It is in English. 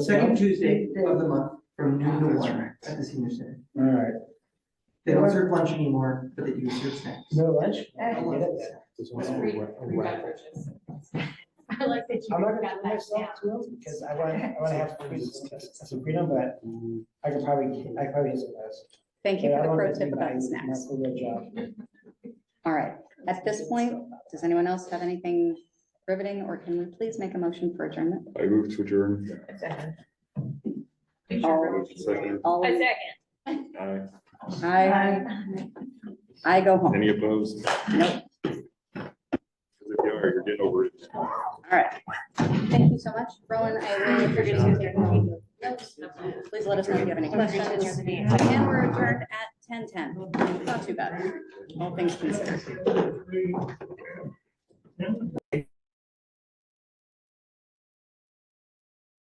Second Tuesday Ah, of the month from noon to one at the senior center. All right. They don't serve lunch anymore, but they do serve snacks. No lunch? Uh, I love that. Free, free beverages. I like that you I'm not gonna got put that myself down. to it because I want, I want to have a Sabrina, but I could probably, I could probably use it as. Thank you but I for the want pro it to tip be my- about my snacks. full day job. All right, at this point, does anyone else have anything riveting, or can we please make a motion for adjournment? I move to adjourn. All, Second. all, A second. Aye. I, I go home. Any opposed? Nope. If you are, you're getting over it. All right. Thank you so much, Rowan. I really appreciate you taking the notes. Please let us know if you have any questions. And we're adjourned at ten ten. Not too bad, all things considered.